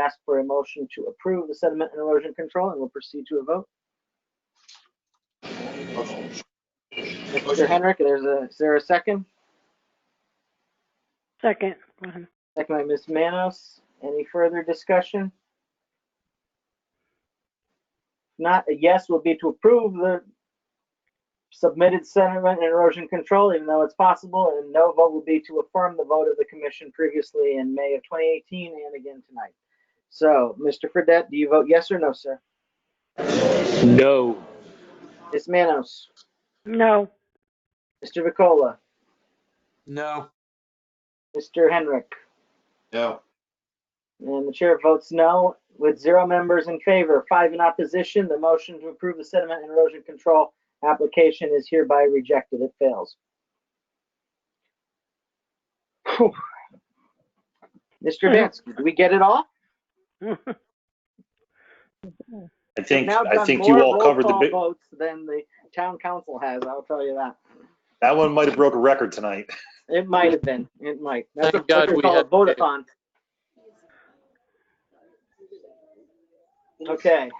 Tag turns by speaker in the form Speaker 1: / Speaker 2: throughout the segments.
Speaker 1: ask for a motion to approve the sediment and erosion control, and we'll proceed to a vote. Mr. Henrik, there's a, is there a second?
Speaker 2: Second, Mohan.
Speaker 1: Second by Ms. Manos. Any further discussion? Not a yes will be to approve the submitted sediment and erosion control, even though it's possible, and no vote will be to affirm the vote of the commission previously in May of 2018 and again tonight. So, Mr. Fredette, do you vote yes or no, sir?
Speaker 3: No.
Speaker 1: Ms. Manos,
Speaker 2: No,
Speaker 1: Mr. Vicola,
Speaker 3: No.
Speaker 1: Mr. Henrik,
Speaker 4: No.
Speaker 1: And the chair votes no, with zero members in favor, five in opposition. The motion to approve the sediment and erosion control application is hereby rejected. It fails. Whew. Mr. Bansky, did we get it all?
Speaker 5: I think,
Speaker 1: Now
Speaker 5: I
Speaker 1: done
Speaker 5: think you
Speaker 1: more
Speaker 5: all
Speaker 1: roll
Speaker 5: covered the
Speaker 1: call
Speaker 5: big,
Speaker 1: Votes than the town council has, I'll tell you that.
Speaker 5: that one might have broke a record tonight.
Speaker 1: It might have been, it might. That's
Speaker 3: Thank
Speaker 1: a- that's
Speaker 3: God
Speaker 1: what
Speaker 3: we
Speaker 1: they call a
Speaker 3: had-
Speaker 1: Votathon. Okay,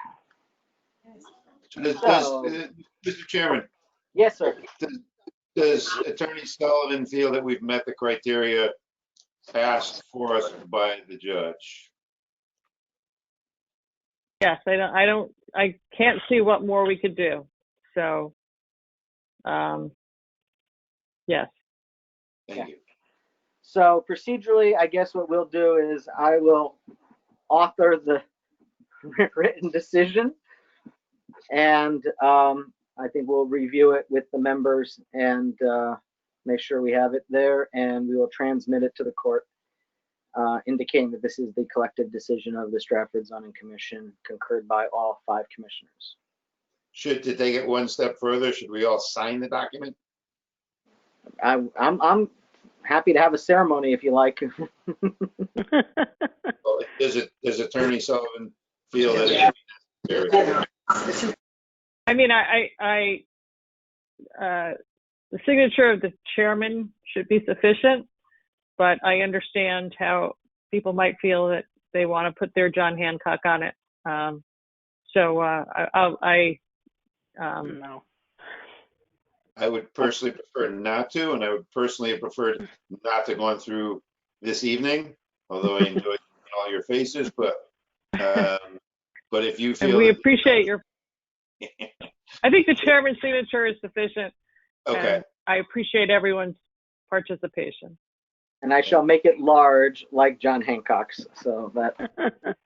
Speaker 4: Does,
Speaker 1: So-
Speaker 4: does, Mr. Chairman,
Speaker 1: yes, sir.
Speaker 4: does Attorney Sullivan feel that we've met the criteria asked for us by the judge?
Speaker 6: Yes, I don't, I don't, I can't see what more we could do. So, um, yes.
Speaker 4: Thank you.
Speaker 1: So procedurally, I guess what we'll do is I will author the written decision. And um, I think we'll review it with the members and uh, make sure we have it there and we will transmit it to the court uh, indicating that this is the collective decision of the Stratford Zoning Commission concurred by all five commissioners.
Speaker 4: Should, to take it one step further, should we all sign the document?
Speaker 1: I, I'm, I'm happy to have a ceremony if you like.
Speaker 4: Or Does it, does Attorney Sullivan feel that? it's necessary?
Speaker 6: I mean, I, I, I, uh, the signature of the chairman should be sufficient, but I understand how people might feel that they want to put their John Hancock on it. Um, so, uh, I, I'll- I, um,
Speaker 2: no.
Speaker 4: I would personally prefer not to, and I would personally have preferred not to gone through this evening, although I enjoyed seeing all your faces, but, um, but if you feel.
Speaker 6: and we
Speaker 4: that-
Speaker 6: appreciate your, I think the chairman's signature is sufficient.
Speaker 4: Okay.
Speaker 6: and I appreciate everyone's participation.
Speaker 1: And I shall make it large like John Hancock's, so that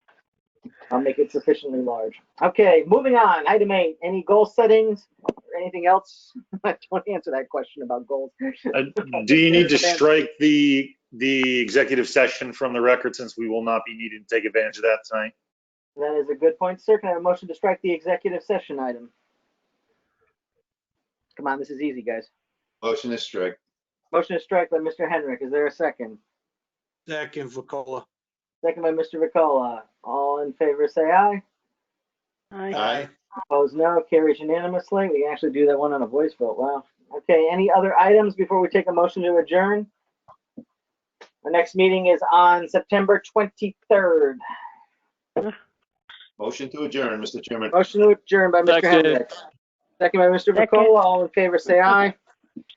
Speaker 1: I'll make it sufficiently large. Okay, moving on. Item eight, any goal settings or anything else? I Don't answer that question about goals.
Speaker 5: Uh, Do you need to
Speaker 1: Understand.
Speaker 5: strike the, the executive session from the record since we will not be needing to take advantage of that tonight?
Speaker 1: That is a good point, sir. Can I have a motion to strike the executive session item? Come on, this is easy, guys.
Speaker 4: Motion is strike.
Speaker 1: Motion to strike by Mr. Henrik. Is there a second?
Speaker 3: Second, Vakola.
Speaker 1: Second by Mr. Ricola. All in favor, say aye.
Speaker 2: Aye.
Speaker 1: Opposed, no. Carries unanimously. We can actually do that one on a voice vote. Wow. Okay, any other items before we take a motion to adjourn? Our next meeting is on September 23rd.
Speaker 4: Motion to adjourn, Mr. Chairman.
Speaker 1: Motion to adjourn by Mr.
Speaker 3: Second.
Speaker 1: Hendricks. Second by Mr.
Speaker 2: Second.
Speaker 1: Vakola. All in favor, say aye.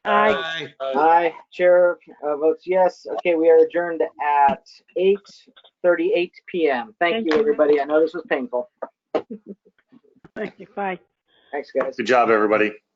Speaker 2: Aye.
Speaker 1: Aye. Chair uh, votes yes. Okay, we are adjourned at 8:38 PM. Thank
Speaker 2: Thank
Speaker 1: you,
Speaker 2: you.
Speaker 1: everybody. I know this was painful.
Speaker 2: Thank you. Bye.
Speaker 1: Thanks, guys.
Speaker 5: Good job, everybody.